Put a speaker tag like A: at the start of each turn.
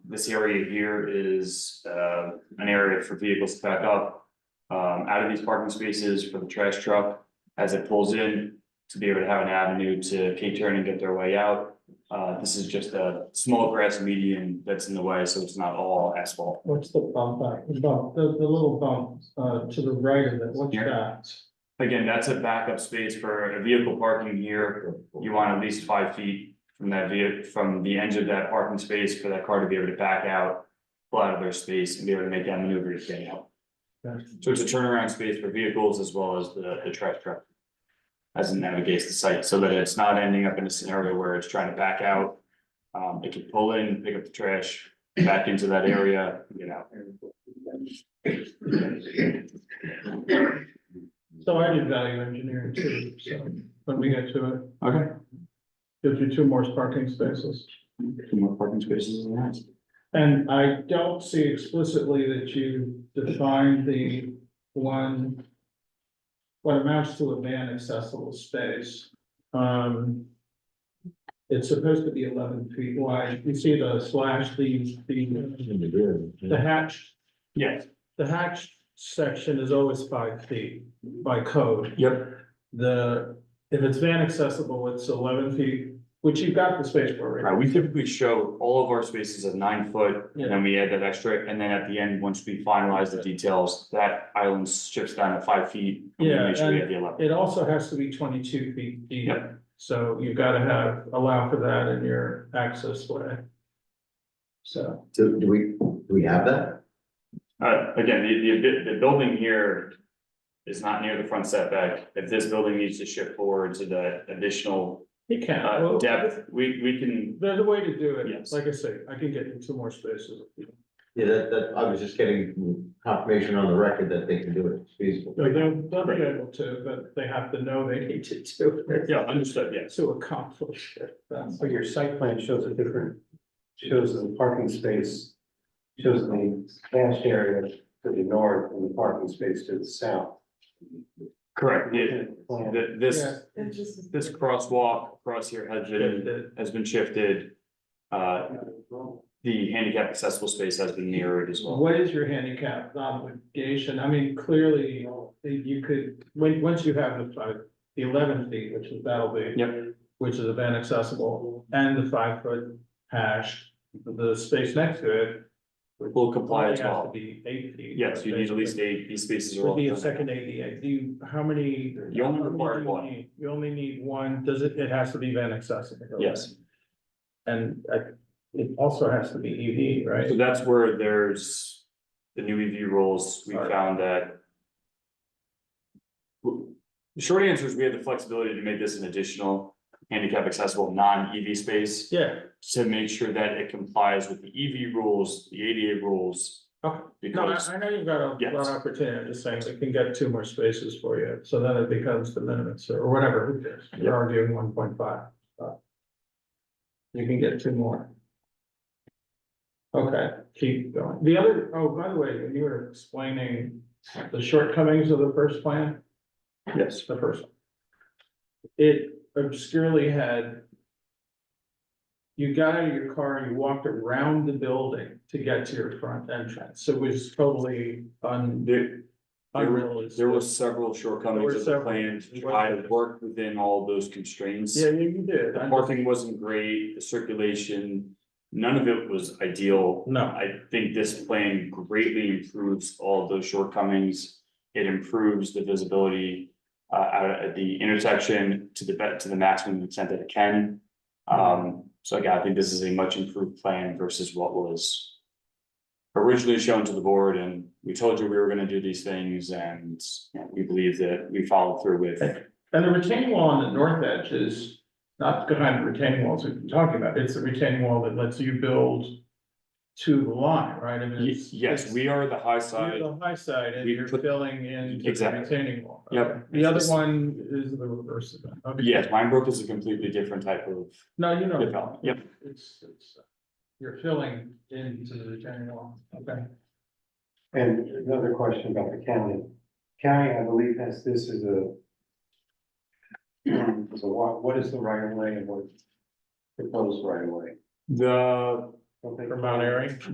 A: this area here is uh an area for vehicles to back up. Um, out of these parking spaces for the trash truck as it pulls in to be able to have an avenue to K-turn and get their way out. Uh, this is just a small grass median that's in the way, so it's not all asphalt.
B: What's the bump out, the bump, the, the little bump, uh, to the right of it, what's
A: Here.
B: that?
A: Again, that's a backup space for a vehicle parking here. You want at least five feet from that vehicle, from the edge of that parking space for that car to be able to back out. Pull out of their space and be able to make that maneuver to get out. So it's a turnaround space for vehicles as well as the, the trash truck. As it navigates the site, so that it's not ending up in a scenario where it's trying to back out. Um, it can pull in, pick up the trash, back into that area, you know.
B: So I did value engineering too, so when we get to it,
A: Okay.
B: gives you two more parking spaces.
A: Two more parking spaces in that.
B: And I don't see explicitly that you define the one. What amounts to a van accessible space. Um. It's supposed to be eleven feet wide. You see the slash, the, the, the hatch,
A: Yes,
B: the hatch section is always five feet by code.
A: yep,
B: The, if it's van accessible, it's eleven feet, which you've got the space for, right?
A: All right, Uh, we typically show all of our spaces at nine foot, and then we add that extra, and then at the end, once we finalize the details, that island shifts down to five feet. and we
B: Yeah,
A: Make sure we
B: and-
A: have the eleven,
B: It also has to be twenty-two feet deep,
A: Yep.
B: so you've gotta have, allow for that in your access way. So,
C: So do we, do we have that?
A: uh, again, the, the, the building here is not near the front setback, if this building needs to shift forward to the additional,
B: you can,
A: uh,
B: well,
A: depth, we, we can.
B: there's a way to do it,
A: Yes.
B: like I say, I can get you two more spaces.
C: Yeah, that, that, I was just getting confirmation on the record that they can do it, it's feasible.
B: So They'll, they'll be able to, but they have to know they need to do it
A: Yeah, understood, yes.
B: to accomplish it, that's.
D: So your site plan shows a different, shows the parking space, shows the dashed area to the north and the parking space to the south.
A: Correct, yeah,
D: Plan.
A: th- this,
B: Yeah.
A: this crosswalk across here has been, has been shifted. Uh, the handicap accessible space has been mirrored as well.
B: What is your handicap um, obligation? I mean, clearly, you could, when, once you have the five, the eleven feet, which is that'll be.
A: Yep.
B: Which is event accessible, and the five foot hash, the space next to it.
A: Will comply as
B: only has to
A: well.
B: Be eight feet.
A: Yes, you need at least eight, these spaces are all.
B: Would be a second ADA, do you, how many?
A: You only require
B: how many do you
A: one.
B: need? You only need one, does it, it has to be event accessible?
A: Yes,
B: And uh, it also has to be EV, right?
A: so that's where there's the new EV rules, we
B: Sorry.
A: found that. The short answer is we had the flexibility to make this an additional handicap accessible non-EV space.
B: Yeah,
A: To make sure that it complies with the EV rules, the ADA rules.
B: Okay. No, I,
A: Because
B: I know you've got a lot
A: Yes.
B: of opportunity, I'm just saying, we can get two more spaces for you, so then it becomes the minimum, so, or whatever, who cares?
A: Yeah.
B: you're arguing one point five. You can get two more. Okay, keep going, the other, oh, by the way, when you were explaining the shortcomings of the first plan,
A: Yes.
B: the first. one. It obscurely had. You got out of your car and you walked around the building to get to your front entrance, so it was totally un.
A: There, there were-
B: unrealistic.
A: there were several shortcomings
B: There were
A: of the
B: several.
A: plan to try to work within all those constraints.
B: Yeah, you you did,
A: The
B: I-
A: parking wasn't great, the circulation, none of it was ideal.
B: no,
A: I think this plan greatly improves all of those shortcomings. It improves the visibility uh, out at the intersection to the be- to the maximum extent that it can. Um, so again, I think this is a much improved plan versus what was originally shown to the board, and we told you we were gonna do these things, and you know, we believe that we followed through with.
B: and the retaining wall on the north edge is not the kind of retaining walls we've been talking about, it's the retaining wall that lets you build. To the line, right? I mean,
A: Ye-
B: it's-
A: Yes,
B: it's-
A: we are the high
B: You're
A: side,
B: the high side and
A: We
B: you're
A: put-
B: filling in to the
A: Exactly.
B: retaining wall.
A: Yep.
B: Okay. The other one is the reverse of that. Okay.
A: yes, Minebrook is a completely different type of
B: No, you know.
A: development, yep.
B: It's, it's, uh, you're filling into the retaining wall, okay.
D: And another question about the county. County, I believe, has this as a. So what, what is the right of way and what proposed right of way?
A: The
D: Don't think-
B: for Mount Airy.